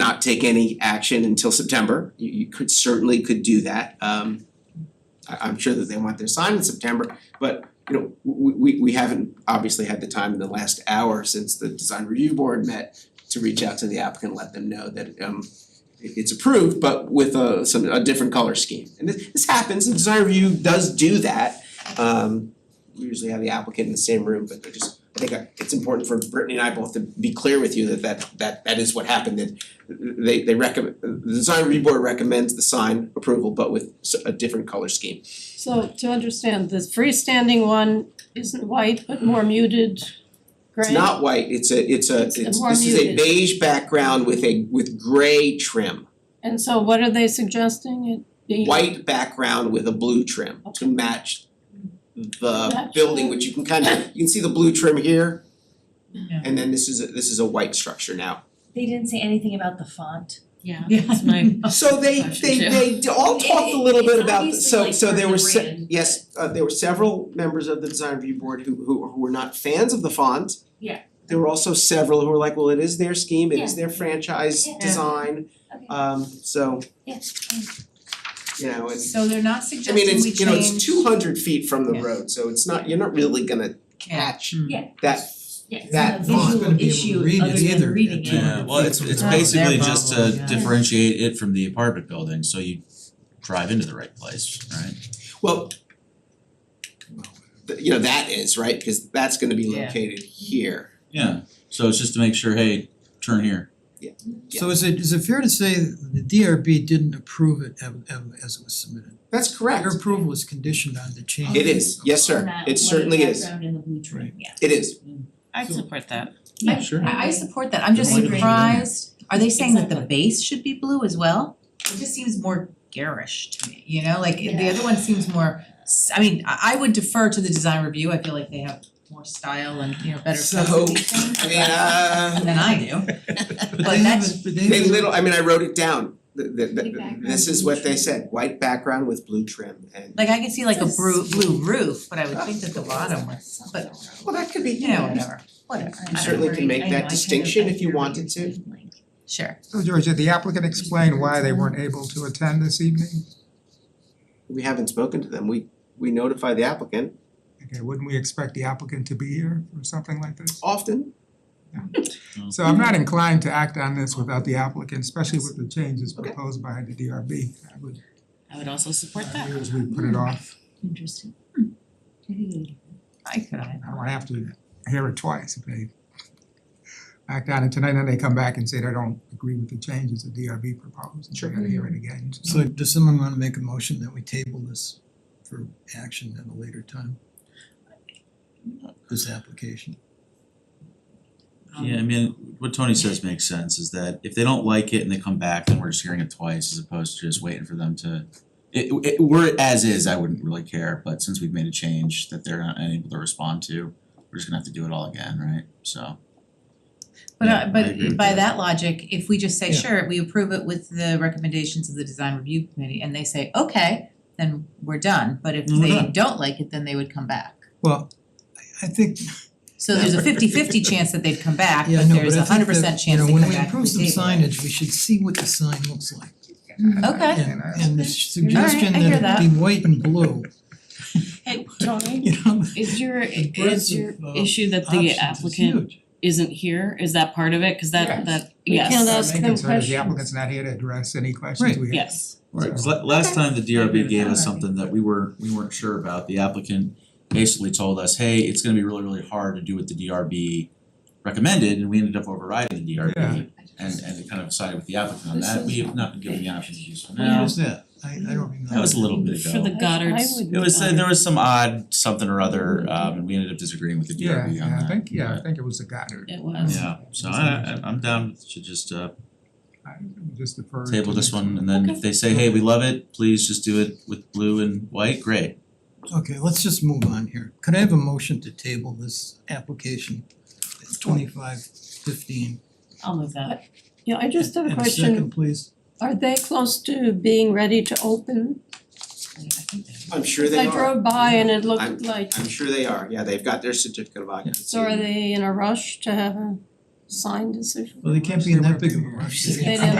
not take any action until September. You you could certainly could do that. Um I I'm sure that they want their sign in September, but you know, we we we haven't obviously had the time in the last hour since the design review board met to reach out to the applicant, let them know that um it- it's approved, but with a some a different color scheme. And this this happens, the design review does do that. Um we usually have the applicant in the same room, but they're just, I think uh, it's important for Brittany and I both to be clear with you that that that that is what happened, that they they recommend, the design review board recommends the sign approval, but with s- a different color scheme. So to understand, the freestanding one isn't white, but more muted gray. It's not white, it's a it's a, It's a it's more this is a muted. beige background with a with gray trim. And so what are they suggesting it be? White background with a blue trim to match the Match building, the- which you can kind of, you can see the blue trim here. Yeah. And then this is a this is a white structure now. They didn't say anything about the font. Yeah, Yeah. that's my, So they they Yeah. they d- all It- talked a little it- bit it's about, the- so obviously, so like, there were part of se- the brand. yes, uh there were several members of the design review board who who who were not fans of the font. Yeah. There were also several who were like, well, it is their scheme, it is their franchise Yeah. design, Okay. um so, Yes. you know, it's So they're not I mean, suggesting we it's, you know, change- it's two hundred feet from the Yeah. road, so it's not, you're not really gonna catch Mm. Yeah. that Yeah. That It's font. not a Not gonna visual be able to issue read it other than either. reading Yeah. it. Yeah, well, it's it's Oh, their basically just bubble, to yeah. differentiate it from the apartment building, so you drive into the right place, right? Well, th- you know, that is, right, because that's gonna be Yeah. located here. Yeah, so it's just to make sure, hey, turn here. So is it is it fair to say the DRB didn't approve it um, um, as it was submitted? That's correct. Your approval was conditioned on the change. It is, yes, On sir, that it white certainly is, background and the blue trim, yeah. it is. I'd support that. Yeah, sure. I I support that, I'm just Why do we need it? surprised, are they saying that the Exactly. base should be blue as well? It just seems more garish to me, you know, like the Yeah. other one seems more, s- I mean, I I would defer to the design review, I feel like they have more style and, you know, better So, specifications I mean, uh, than I do. But But they that's, haven't, but they they haven't- little, I mean, I wrote it down, the the White the background, this is blue what they trim. said, white background with blue trim and like I can see like a It's a blue s- blue roof, but I would think that the bottom was, but well, that could be, you know, whatever, whatever, I You don't certainly know. can make I know, I that kind of- distinction I if you hear what wanted you're to. saying, like, Sure. So George, did the applicant explain why they weren't able to attend this evening? We haven't spoken to them, we we notify the applicant Okay, wouldn't we expect the applicant to be here for something like this? often, So I'm not inclined to act on this without the applicant, especially with the changes proposed by the DRB. I would, I would also support I that. would put it off. Interesting. Hmm. I could, I I don't have to hear it twice if they act on it tonight and they come back and say they don't agree with the changes the DRB proposed. Sure. They gotta hear it again. So So does someone wanna make a motion that we table this for action at a later time? This application. Um, Yeah, I mean, what Tony says makes sense, is that if they don't like it and they come back, then we're just hearing it twice as opposed to just waiting for them to. It it were it as is, I wouldn't really care, but since we've made a change that they're not unable to respond to, we're just gonna have to do it all again, right? So. But Yeah, I uh agree but with by that. that logic, if we just say, Yeah. sure, we approve it with the recommendations of the design review committee and they say, okay, then we're done, but if Then we're they done. don't like it, then they would come back. Well, I I think, So there's a fifty fifty chance that they'd come back, yeah, but no, but there's I a hundred think percent that, you chance know, they come when we back approve if some they table it. signage, we should see what the sign looks like. Okay. And and the suggestion I hear that it be white and blue, Hey, Tony, you know, is your the breadth is your of, uh, issue that options the is applicant huge. isn't here, is that part of it? Cause that Yes. that, We can't yes, ask- My them main concern is questions. the applicant's not here to address any questions Right. we have. yes. Right, 'cause la- last time the agree DRB with gave that. us something that we were, we weren't sure about, the applicant basically told us, hey, it's gonna be really, really hard to do what the DRB recommended, and we ended up overriding the DRB. Yeah. And and kind of sided with the applicant on that, we have not been given the option to use for When now, was that? I I don't remember. that was a little bit For the ago. Goddards. I would It was, uh, um, there was some odd something or other, um, and we ended up disagreeing with the Mm-hmm. Yeah, DRB on yeah, I that. think, yeah, I think it was a Goddard. It was. Yeah, so I I- I'm down to just uh I just defer to table this next one, and then if they say, hey, we love it, please just do it with blue and white, great. Okay, let's just move on here. Could I have a motion to table this application, twenty-five fifteen? I'll move that. Yeah, I just have a And a question, second, please. are they close to being ready to open? I'm sure they are. I drove by and it I'm- looked like, I'm sure they are, yeah, they've got their certificate of occupancy. so are they in a rush to have a signed decision? Well, they can't be in that big of a rush. They They- didn't